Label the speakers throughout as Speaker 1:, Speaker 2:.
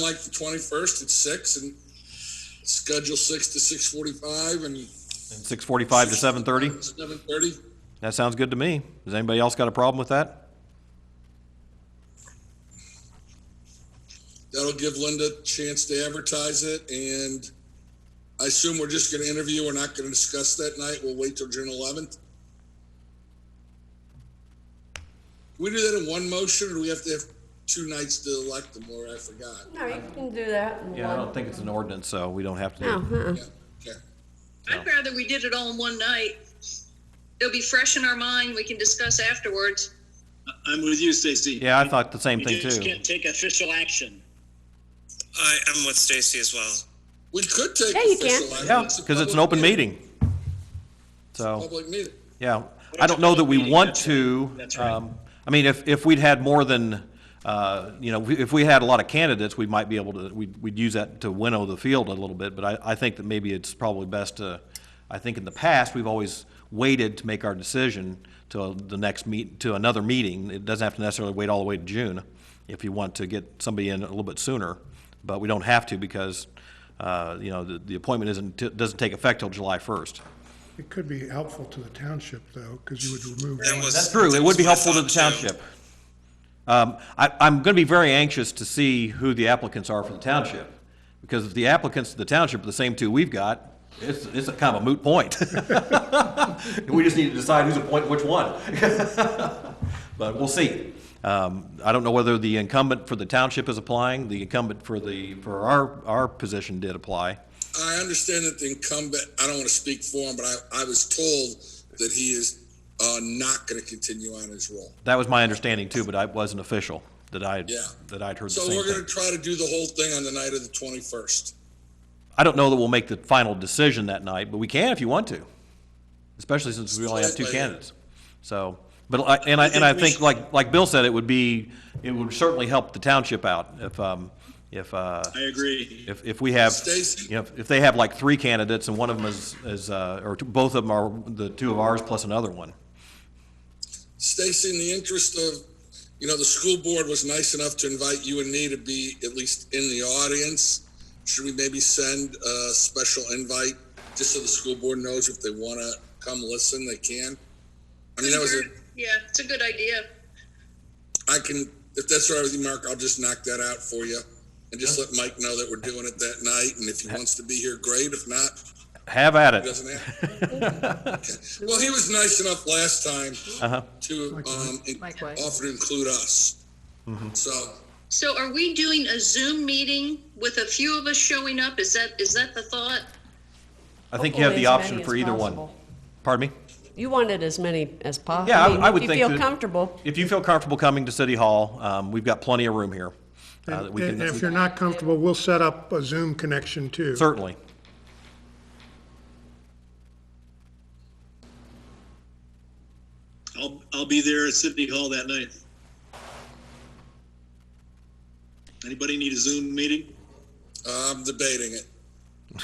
Speaker 1: like the twenty-first at six and schedule six to six forty-five and.
Speaker 2: 6:45 to 7:30?
Speaker 1: Seven thirty.
Speaker 2: That sounds good to me. Does anybody else got a problem with that?
Speaker 1: That'll give Linda a chance to advertise it and I assume we're just gonna interview. We're not gonna discuss that night. We'll wait till June eleventh. Can we do that in one motion or do we have to have two nights to elect them or I forgot?
Speaker 3: No, you can do that. in
Speaker 2: Yeah, I
Speaker 3: one.
Speaker 2: don't think it's an ordinance, so we don't have to.
Speaker 3: No, uh-uh.
Speaker 1: Yeah, okay.
Speaker 4: I'd rather we did it all in one night. It'll be fresh in our mind. We can discuss afterwards.
Speaker 5: I'm with you, Stacy.
Speaker 2: Yeah, I thought the same
Speaker 5: You
Speaker 2: thing
Speaker 5: just
Speaker 2: too.
Speaker 5: can't take official action.
Speaker 6: I am with Stacy as well.
Speaker 1: We could take.
Speaker 3: Yeah, you
Speaker 1: official
Speaker 3: can.
Speaker 1: action.
Speaker 2: Yeah,
Speaker 1: a
Speaker 2: because it's an
Speaker 1: public
Speaker 2: open meeting. So,
Speaker 1: Public meeting.
Speaker 2: yeah, I don't know that we
Speaker 5: Meeting,
Speaker 2: want
Speaker 5: that's right.
Speaker 2: to.
Speaker 5: That's right.
Speaker 2: um, I mean, if, if we'd had more than, uh, you know, if we had a lot of candidates, we might be able to, we'd, we'd use that to winnow the field a little bit, but I, I think that maybe it's probably best to, I think in the past, we've always waited to make our decision till the next meet, to another meeting. It doesn't have to necessarily wait all the way to June if you want to get somebody in a little bit sooner, but we don't have to because, uh, you know, the, the appointment isn't, doesn't take effect till July first.
Speaker 7: It could be helpful to the township, though, because you would remove
Speaker 6: That
Speaker 7: one.
Speaker 6: was-
Speaker 2: That's true. It would be
Speaker 6: That was
Speaker 2: helpful to the
Speaker 6: my thought, too.
Speaker 2: township. Um, I, I'm going to be very anxious to see who the applicants are for the township, because if the applicants to the township are the same two we've got, it's, it's a kind of a moot point. We just need to decide who's appointing which one. But we'll see. Um, I don't know whether the incumbent for the township is applying, the incumbent for the, for our, our position did apply.
Speaker 1: I understand that the incumbent, I don't want to speak for him, but I, I was told that he is uh, not going to continue on his role.
Speaker 2: That was my understanding too, but I wasn't official, that I,
Speaker 1: Yeah.
Speaker 2: that I'd heard the
Speaker 1: So
Speaker 2: same thing.
Speaker 1: we're going to try to do the whole thing on the night of the 21st.
Speaker 2: I don't know that we'll make the final decision that night, but we can if you want to, especially since we only have two
Speaker 1: Right, right.
Speaker 2: candidates. So, but I, and I, and I think, like, like Bill said, it would be, it would certainly help the township out if, um, if, uh,
Speaker 5: I agree.
Speaker 2: if, if we have,
Speaker 1: Stacy?
Speaker 2: you know, if they have like three candidates and one of them is, is, uh, or t- both of them are the two of ours plus another one.
Speaker 1: Stacy, in the interest of, you know, the school board was nice enough to invite you and me to be at least in the audience. Should we maybe send a special invite just so the school board knows if they want to come listen, they can? I mean, that was a,
Speaker 4: Yeah, it's a good idea.
Speaker 1: I can, if that's all right with you, Mark, I'll just knock that out for you and just let Mike know that we're doing it that night. And if he wants to be here, great. If not,
Speaker 2: Have at
Speaker 1: he
Speaker 2: it.
Speaker 1: doesn't have. Okay. Well, he was nice enough last time to, um, in-
Speaker 3: Likewise.
Speaker 1: offer to include us. So
Speaker 4: So are we doing a Zoom meeting with a few of us showing up? Is that, is that the thought?
Speaker 2: I think you have the
Speaker 3: Hopefully uh-uh. as
Speaker 2: option
Speaker 3: many
Speaker 2: for
Speaker 3: as
Speaker 2: either one.
Speaker 3: possible.
Speaker 2: Pardon me?
Speaker 3: You wanted as many as possible.
Speaker 2: Yeah, I- I would think
Speaker 3: If you feel
Speaker 2: that-
Speaker 3: comfortable,
Speaker 2: If you feel comfortable coming to City Hall, um, we've got plenty of room here. uh, that we can-
Speaker 7: And if you're not comfortable, we'll set up a Zoom connection, too.
Speaker 2: Certainly.
Speaker 5: I'll, I'll be there at City Hall that night. Anybody need a Zoom meeting?
Speaker 1: I'm debating it.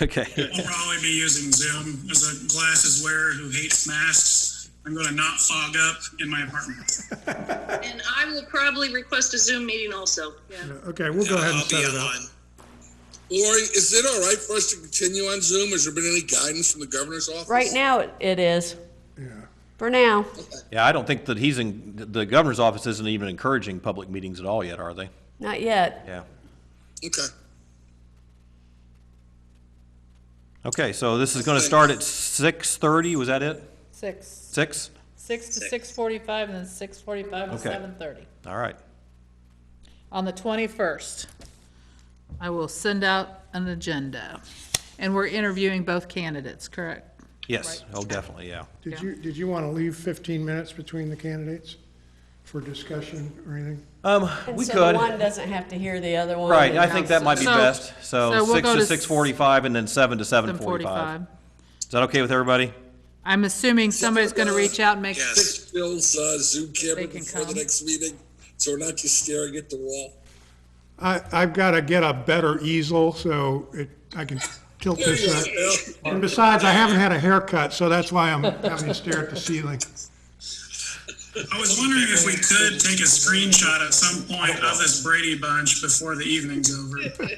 Speaker 2: Okay.
Speaker 8: I'll probably be using Zoom as a glasses wearer who hates masks. I'm going to not fog up in my apartment.
Speaker 4: And I will probably request a Zoom meeting also. Yeah.
Speaker 7: Okay, we'll go ahead and
Speaker 6: I'll be
Speaker 7: set it up.
Speaker 6: on.
Speaker 1: Lori, is it all right for us to continue on Zoom? Has there been any guidance from the governor's office?
Speaker 3: right now it- it is. For now,
Speaker 2: Yeah, I don't think that he's in, the governor's office isn't even encouraging public meetings at all yet, are they?
Speaker 3: not yet.
Speaker 2: Yeah.
Speaker 1: Okay.
Speaker 2: Okay, so this is gonna start at six thirty, was that it?
Speaker 9: Six,
Speaker 2: Six?
Speaker 9: six to six forty-five, and then six forty-five to
Speaker 2: Okay.
Speaker 9: seven thirty.
Speaker 2: All right.
Speaker 9: On the twenty-first, I will send out an agenda, and we're interviewing both candidates, correct?
Speaker 2: Yes, oh, definitely, yeah.
Speaker 7: Did you, did you want to leave 15 minutes between the candidates for discussion or anything?
Speaker 2: Um,
Speaker 3: And
Speaker 2: we
Speaker 3: so
Speaker 2: could,
Speaker 3: one doesn't have to hear the other one.
Speaker 2: right, I
Speaker 3: and
Speaker 2: think that might be
Speaker 9: So-
Speaker 2: best.
Speaker 9: so
Speaker 2: So
Speaker 9: we'll
Speaker 2: six
Speaker 9: go
Speaker 2: to
Speaker 9: to
Speaker 2: six forty-five and then seven to seven
Speaker 9: Seven
Speaker 2: forty-five.
Speaker 9: forty-five.
Speaker 2: Is that okay with everybody?
Speaker 9: I'm assuming somebody's gonna reach out and make,
Speaker 6: Yes.
Speaker 1: Fix Bill's uh, Zoom camera
Speaker 9: They can
Speaker 1: before the
Speaker 9: come.
Speaker 1: next meeting, so we're not just staring at the wall.
Speaker 7: I, I've got to get a better easel, so it, I can tilt this up. And besides, I haven't had a haircut, so that's why I'm having to stare at the ceiling.
Speaker 8: I was wondering if we could take a screenshot at some point of this Brady Bunch before the evening's over.